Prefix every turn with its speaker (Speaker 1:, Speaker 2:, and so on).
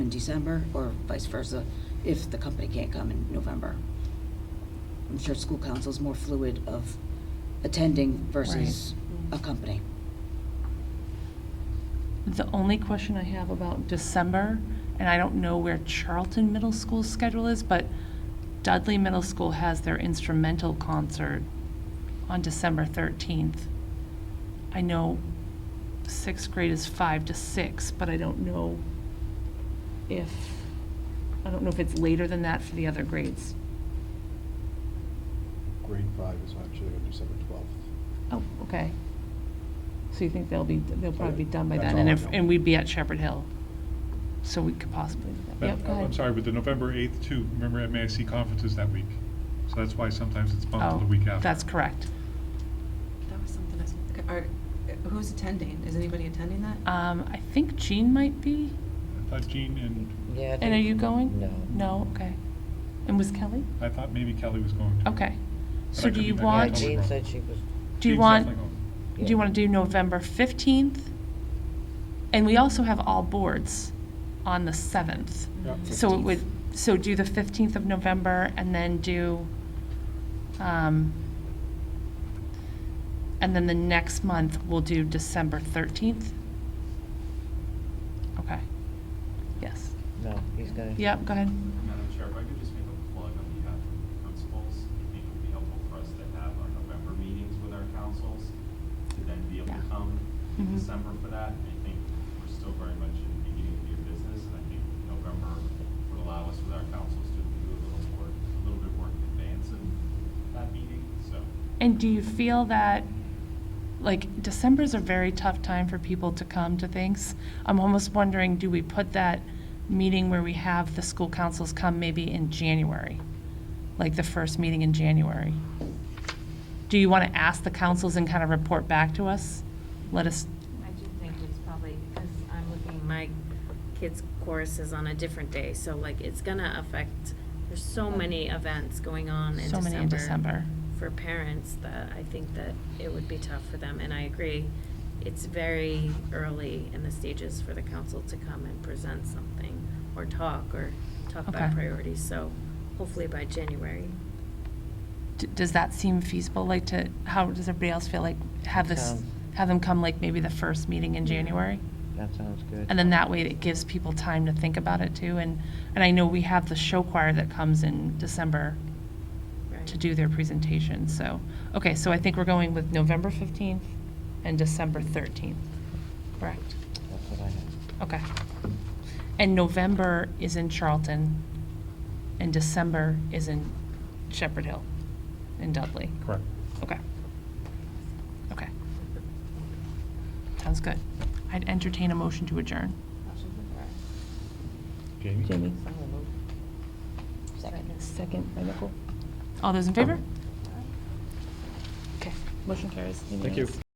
Speaker 1: December, or vice versa, if the company can't come in November. I'm sure school council's more fluid of attending versus a company.
Speaker 2: The only question I have about December, and I don't know where Charlton Middle School's schedule is, but Dudley Middle School has their instrumental concert on December 13th. I know sixth grade is five to six, but I don't know if, I don't know if it's later than that for the other grades.
Speaker 3: Grade five is actually on December twelfth.
Speaker 2: Oh, okay. So you think they'll be, they'll probably be done by
Speaker 3: That's
Speaker 2: then, and
Speaker 3: all I
Speaker 2: if,
Speaker 3: know.
Speaker 2: and we'd be at Shepherd Hill, so we could possibly do that.
Speaker 4: But,
Speaker 2: Yep, go
Speaker 4: I'm
Speaker 2: ahead.
Speaker 4: sorry, with the November 8th too, remember MASC conference is that week. So that's why sometimes it's bumped to
Speaker 2: Oh,
Speaker 4: the week after.
Speaker 2: That's correct.
Speaker 5: That was something I was, okay, are, who's attending? Is anybody attending that?
Speaker 2: Um, I think Jean might be.
Speaker 4: I thought Jean and,
Speaker 6: Yeah. I
Speaker 2: And are
Speaker 6: think-
Speaker 2: you going?
Speaker 6: No.
Speaker 2: No, okay. And was Kelly?
Speaker 4: I thought maybe Kelly was going to.
Speaker 2: Okay.
Speaker 4: But I
Speaker 2: So
Speaker 4: could
Speaker 2: do
Speaker 4: be-
Speaker 2: you
Speaker 4: I could be
Speaker 6: Yeah,
Speaker 2: want,
Speaker 4: totally
Speaker 2: do
Speaker 6: Jean
Speaker 4: wrong.
Speaker 6: said she was.
Speaker 2: you
Speaker 4: Jean's
Speaker 2: want,
Speaker 4: definitely going.
Speaker 2: do you want to do November 15th? And we also have all boards on the 7th.
Speaker 4: Yeah.
Speaker 2: So it would, so do the 15th of November and then do, um, and then the next month, we'll do December 13th? Okay. Yes.
Speaker 6: No, he's gonna.
Speaker 2: Yep, go ahead.
Speaker 7: Madam Chair, if I could just make a plug on behalf of the principals, I think it would be helpful for us to have our November meetings with our councils, to then be able to
Speaker 2: Yeah.
Speaker 7: come
Speaker 2: Mhm.
Speaker 7: in December for that. I think we're still very much in the beginning of your business, and I think November would allow us with our councils to do a little work, a little bit of work in advance in that meeting, so.
Speaker 2: And do you feel that, like, December's a very tough time for people to come to things? I'm almost wondering, do we put that meeting where we have the school councils come maybe in January? Like the first meeting in January? Do you want to ask the councils and kind of report back to us? Let us,
Speaker 8: I do think it's probably, because I'm looking, my kids' chorus is on a different day, so like, it's gonna affect, there's so many events going on
Speaker 2: Oh.
Speaker 8: in
Speaker 2: so
Speaker 8: December.
Speaker 2: many in December.
Speaker 8: For parents, that I think that it would be tough for them, and I agree, it's very early in the stages for the council to come and present something, or talk, or talk about
Speaker 2: Okay.
Speaker 8: priorities, so hopefully by January.
Speaker 2: D- Does that seem feasible, like to, how does everybody else feel like, have this,
Speaker 6: Come.
Speaker 2: have them come like maybe the first meeting in
Speaker 8: Yeah.
Speaker 2: January?
Speaker 6: That sounds good.
Speaker 2: And then that way it gives people time to think about it too. And, and I know we have the show choir that comes in December
Speaker 8: right?
Speaker 2: to do their presentation, so. Okay, so I think we're going with November 15th and December 13th, correct?
Speaker 6: That's what I have.
Speaker 2: Okay. And November is in Charlton and December is in Shepherd Hill in Dudley.
Speaker 4: Correct.
Speaker 2: Okay. Okay. Sounds good. I'd entertain a motion to adjourn.
Speaker 4: Jamie?
Speaker 2: Second by Nicole. All those in favor? Okay, motion carries.
Speaker 4: Thank you.